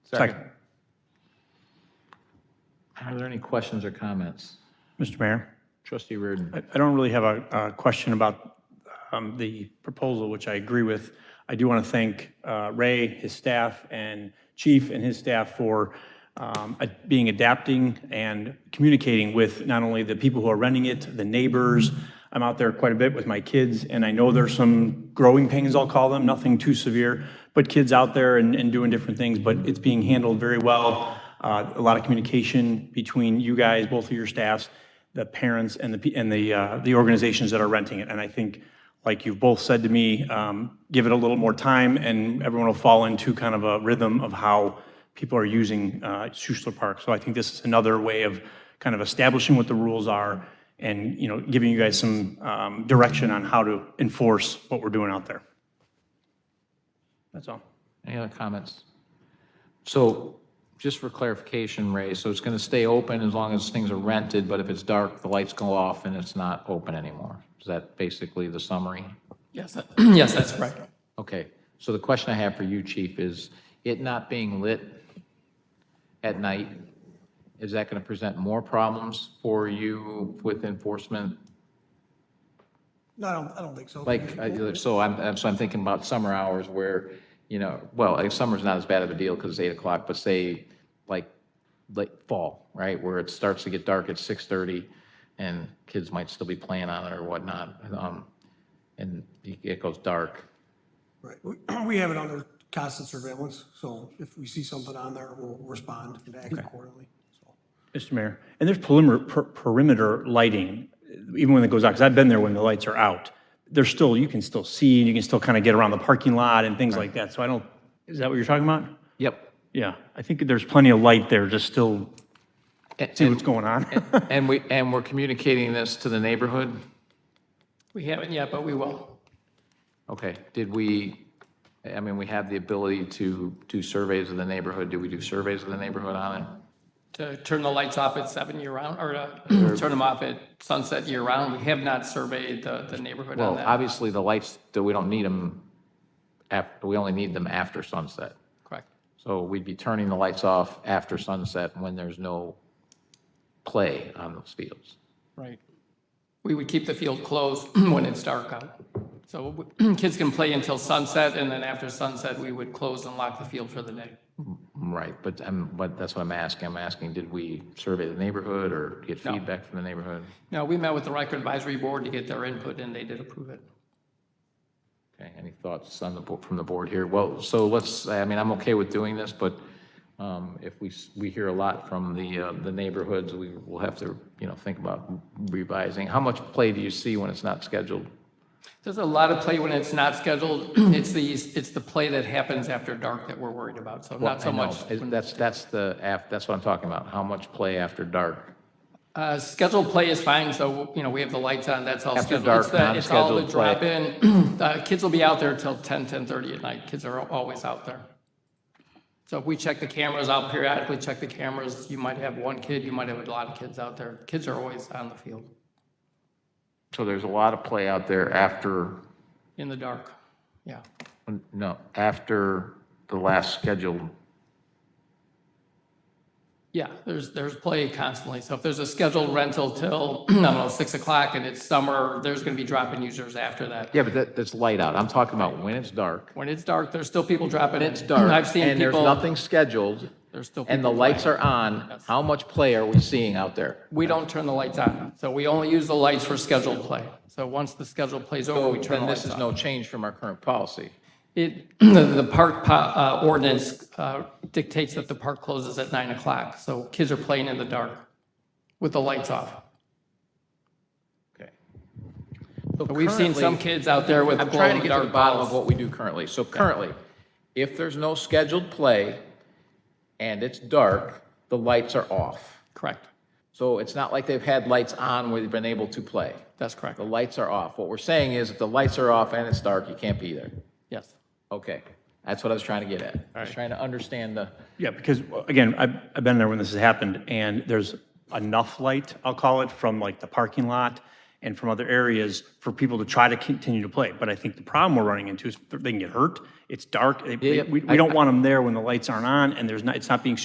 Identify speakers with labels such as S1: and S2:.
S1: Second.
S2: Are there any questions or comments?
S1: Mr. Mayor,
S2: Trustee Reardon.
S1: I I don't really have a a question about um, the proposal, which I agree with. I do want to thank uh, Ray, his staff, and Chief and his staff for um, ad- being adapting and communicating with not only the people who are renting it, the neighbors. I'm out there quite a bit with my kids, and I know there's some growing pains, I'll call them, nothing too severe, but kids out there and and doing different things, but it's being handled very well. Uh, A lot of communication between you guys, both of your staffs, the parents and the, pe- and the, uh, the organizations that are renting it. And I think, like you've both said to me, um, give it a little more time and everyone will fall into kind of a rhythm of how people are using, uh, Schuylkill Park. So I think this is another way of kind of establishing what the rules are and, you know, giving you guys some, um, direction on how to enforce what we're doing out there. That's all.
S2: Any other comments? So just for clarification, Ray, so it's going to stay open as long as things are rented, but if it's dark, the lights go off and it's not open anymore? Is that basically the summary?
S3: Yes, that- yes, that's correct.
S2: Okay, so the question I have for you, chief, is it not being lit at night, is that going to present more problems for you with enforcement?
S4: No, I don't, I don't think so.
S2: Like, I- so I'm, I'm- so I'm thinking about summer hours where, you know, well, like, summer's not as bad of a deal because it's eight o'clock, but say, like, late fall, right, where it starts to get dark at six thirty and kids might still be playing on it or whatnot, um, and it goes dark.
S4: Right. We- We have it under constant surveillance, so if we see something on there, we'll respond and act accordingly. So
S1: Mr. Mayor, and there's perimeter, per- perimeter lighting, even when it goes out, because I've been there when the lights are out. There's still, you can still see, and you can still kind of get around the parking lot and things like that. So I don't, is that what you're talking about?
S2: Yep.
S1: Yeah, I think there's plenty of light there, just still
S2: And-
S1: see what's going on.
S2: And we, and we're communicating this to the neighborhood?
S3: We haven't yet, but we will.
S2: Okay, did we, I mean, we have the ability to do surveys of the neighborhood, do we do surveys of the neighborhood on it?
S3: To turn the lights off at seven year round, or to turn them off at sunset year round. We have not surveyed the, the neighborhood on
S2: Well,
S3: that.
S2: obviously, the lights, that we don't need them, af- we only need them after sunset.
S3: Correct.
S2: So we'd be turning the lights off after sunset when there's no play on those fields.
S3: Right. We would keep the field closed when it's dark out. So kids can play until sunset, and then after sunset, we would close and lock the field for the day.
S2: Right, but I'm, but that's what I'm asking, I'm asking, did we survey the neighborhood or get
S3: No.
S2: feedback from the neighborhood?
S3: No, we met with the Riker Advisory Board to get their input, and they did approve it.
S2: Okay, any thoughts on the, bo- from the board here? Well, so let's, I mean, I'm okay with doing this, but um, if we, s- we hear a lot from the, uh, the neighborhoods, we will have to, you know, think about revising. How much play do you see when it's not scheduled?
S3: There's a lot of play when it's not scheduled. It's the, it's the play that happens after dark that we're worried about, so not so
S2: I know.
S3: much.
S2: Is- That's, that's the, af- that's what I'm talking about, how much play after dark?
S3: Uh, Scheduled play is fine, so, you know, we have the lights on, that's all
S2: After
S3: scheduled.
S2: dark,
S3: It's the- It's all the
S2: non-scheduled
S3: drop
S2: play.
S3: in. Uh, Kids will be out there till 10, 10:30 at night. Kids are always out there. So if we check the cameras, I'll periodically check the cameras. You might have one kid, you might have a lot of kids out there. Kids are always on the field,
S2: So there's a lot of play out there after,
S3: in the dark, yeah.
S2: no, after the last scheduled.
S3: Yeah, there's, there's play constantly. So if there's a scheduled rental till, I don't know, 6 o'clock and it's summer, there's going to be dropping users after that.
S2: Yeah, but that, that's light out. I'm talking about when it's dark.
S3: When it's dark, there's still people dropping in.
S2: It's dark.
S3: I've seen
S2: And there's
S3: people,
S2: nothing scheduled.
S3: there's still
S2: and the
S3: people
S2: lights are on, how much play are we seeing out there?
S3: we don't turn the lights on. So we only use the lights for scheduled play. So once the scheduled play's over,
S2: So
S3: we turn
S2: then
S3: the
S2: this
S3: lights
S2: is
S3: off.
S2: no change from our current policy.
S3: It, the the park po- uh, ordinance uh, dictates that the park closes at 9 o'clock. So kids are playing in the dark with the lights off.
S2: Okay.
S3: But we've seen some kids out there with
S2: I'm trying to get to the
S3: glow-in-the-dark
S2: bottom
S3: balls.
S2: of what we do currently. So currently, if there's no scheduled play and it's dark, the lights are off.
S3: Correct.
S2: So it's not like they've had lights on where they've been able to play.
S3: That's correct.
S2: The lights are off. What we're saying is if the lights are off and it's dark, you can't be there.
S3: Yes.
S2: Okay, that's what I was trying to get at. I was trying to understand the.
S1: Yeah, because again, I've, I've been there when this has happened and there's enough light, I'll call it, from like the parking lot and from other areas for people to try to continue to play. But I think the problem we're running into is they can get hurt. It's dark. They-
S2: yeah.
S1: We we don't want them there when the lights aren't on and there's not, it's not being